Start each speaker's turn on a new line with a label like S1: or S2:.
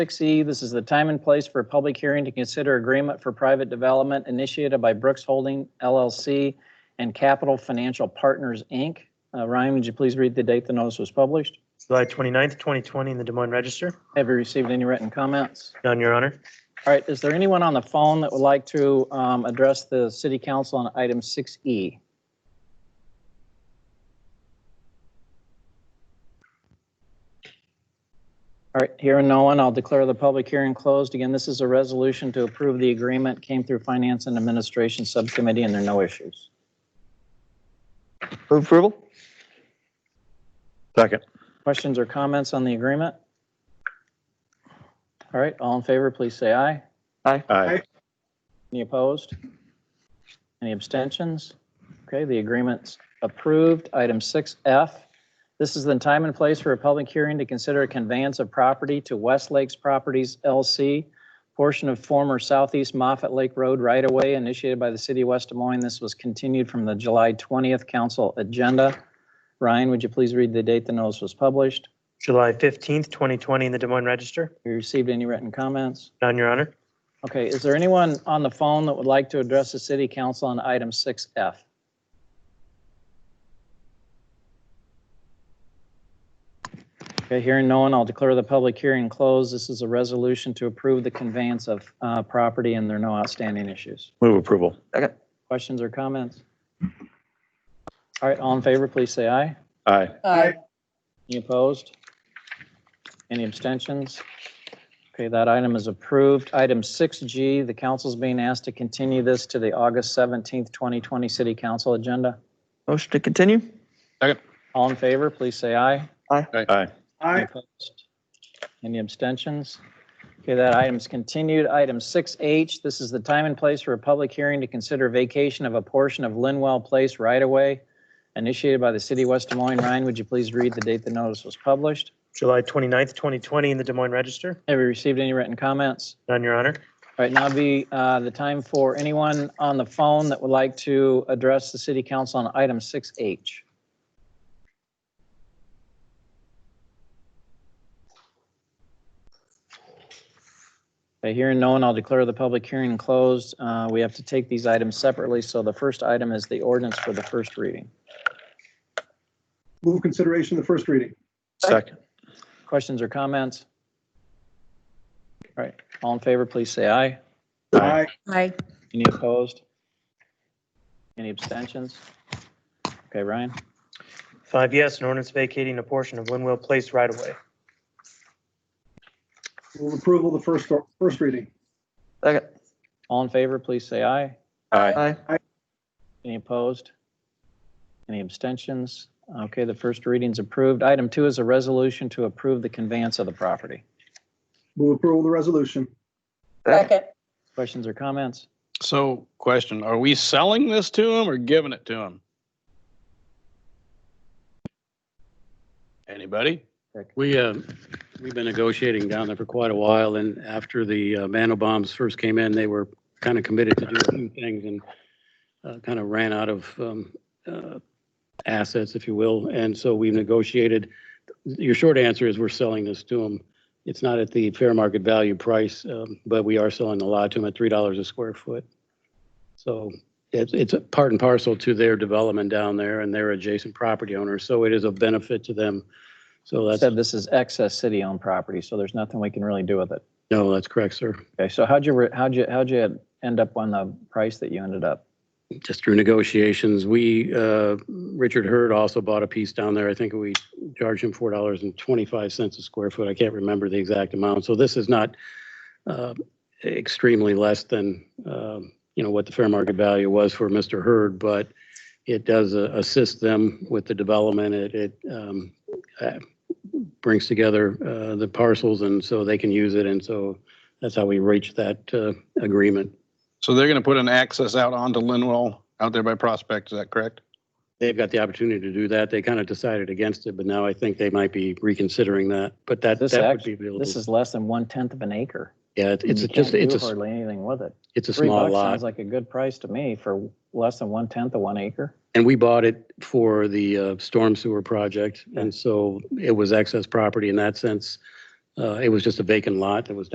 S1: 6E, this is the time and place for a public hearing to consider agreement for private development initiated by Brooks Holding LLC and Capital Financial Partners, Inc. Uh, Ryan, would you please read the date the notice was published?
S2: July 29th, 2020, in the Des Moines Register.
S1: Have you received any written comments?
S2: None, Your Honor.
S1: All right, is there anyone on the phone that would like to um, address the city council on item E? 6E? All right, hearing no one, I'll declare the public hearing closed. Again, this is a resolution to approve the agreement, came through Finance and Administration Subcommittee, and there are no issues.
S3: Move approval? Second.
S1: Questions or comments on the agreement? All right, all in favor, please say aye.
S3: Aye.
S1: Any opposed? Any abstentions? Okay, the agreement's approved. Item 6F, this is the time and place for a public hearing to consider a conveyance of property to West Lakes Properties LC, portion of former Southeast Moffett Lake Road right-of-way initiated by the city of West Des Moines. This was continued from the July 20th council agenda. Ryan, would you please read the date the notice was published?
S2: July 15th, 2020, in the Des Moines Register.
S1: Have you received any written comments?
S2: None, Your Honor.
S1: Okay, is there anyone on the phone that would like to address the city council on item 6F? Okay, hearing no one, I'll declare the public hearing closed. This is a resolution to approve the conveyance of uh, property, and there are no outstanding issues.
S3: Move approval? Second.
S1: Questions or comments? All right, all in favor, please say aye.
S3: Aye.
S1: Any opposed? Any abstentions? Okay, that item is approved. Item 6G, the council's being asked to continue this to the August 17th, 2020 city council agenda.
S4: Motion to continue?
S1: All in favor, please say aye.
S3: Aye.
S1: Any opposed? Any abstentions? Okay, that item's continued. Item 6H, this is the time and place for a public hearing to consider vacation of a portion of Linwell Place right-of-way initiated by the city of West Des Moines. Ryan, would you please read the date the notice was published?
S2: July 29th, 2020, in the Des Moines Register.
S1: Have you received any written comments?
S2: None, Your Honor.
S1: All right, now would be uh, the time for anyone on the phone that would like to address the city council on item 6H. By hearing no one, I'll declare the public hearing closed. Uh, We have to take these items separately, so the first item is the ordinance for the first reading.
S5: Move consideration of the first reading.
S3: Second.
S1: Questions or comments? All right, all in favor, please say aye.
S3: Aye.
S6: Aye.
S1: Any opposed? Any abstentions? Okay, Ryan,
S2: Five yes, an ordinance vacating a portion of Linwell Place right-of-way.
S5: Move approval of the first, first reading.
S4: Second.
S1: all in favor, please say aye.
S3: Aye.
S4: Aye.
S1: Any opposed? Any abstentions? Okay, the first reading's approved. Item two is a resolution to approve the conveyance of the property.
S5: Move approval of the resolution.
S6: Second.
S1: Questions or comments?
S7: So question, are we selling this to them or giving it to them? Anybody?
S8: We, uh, we've been negotiating down there for quite a while, and after the uh, man bombs first came in, they were kind of committed to do a few things and uh, kind of ran out of um, uh, assets, if you will, and so we negotiated. Your short answer is we're selling this to them. It's not at the fair market value price, um, but we are selling the lot to them at $3 a square foot. So it's, it's a part and parcel to their development down there and their adjacent property owners, so it is a benefit to them. So that's.
S1: Said this is excess city-owned property, so there's nothing we can really do with it.
S8: No, that's correct, sir.
S1: Okay, so how'd you, re- how'd you, how'd you end up on the price that you ended up?
S8: Just through negotiations, we, uh, Richard Hurd also bought a piece down there. I think we charged him $4.25 a square foot. I can't remember the exact amount. So this is not uh, extremely less than, um, you know, what the fair market value was for Mr. Hurd, but it does uh, assist them with the development. It, it um, uh, brings together uh, the parcels and so they can use it. And so that's how we reached that uh, agreement.
S7: So they're going to put an access out onto Linwell out there by Prospect, is that correct?
S8: They've got the opportunity to do that. They kind of decided against it, but now I think they might be reconsidering that, but that,
S1: This
S8: that would
S1: act-
S8: be available.
S1: This is less than one-tenth of an acre.
S8: Yeah, it- it's
S1: You
S8: just,
S1: can't
S8: it's
S1: do
S8: a, s-
S1: Hardly anything with it.
S8: it's a
S1: Three
S8: small
S1: bucks
S8: lot.
S1: Sounds like a good price to me for less than one-tenth of one acre.
S8: And we bought it for the uh, storm sewer project. And so it was excess property in that sense. Uh, It was just a vacant lot that was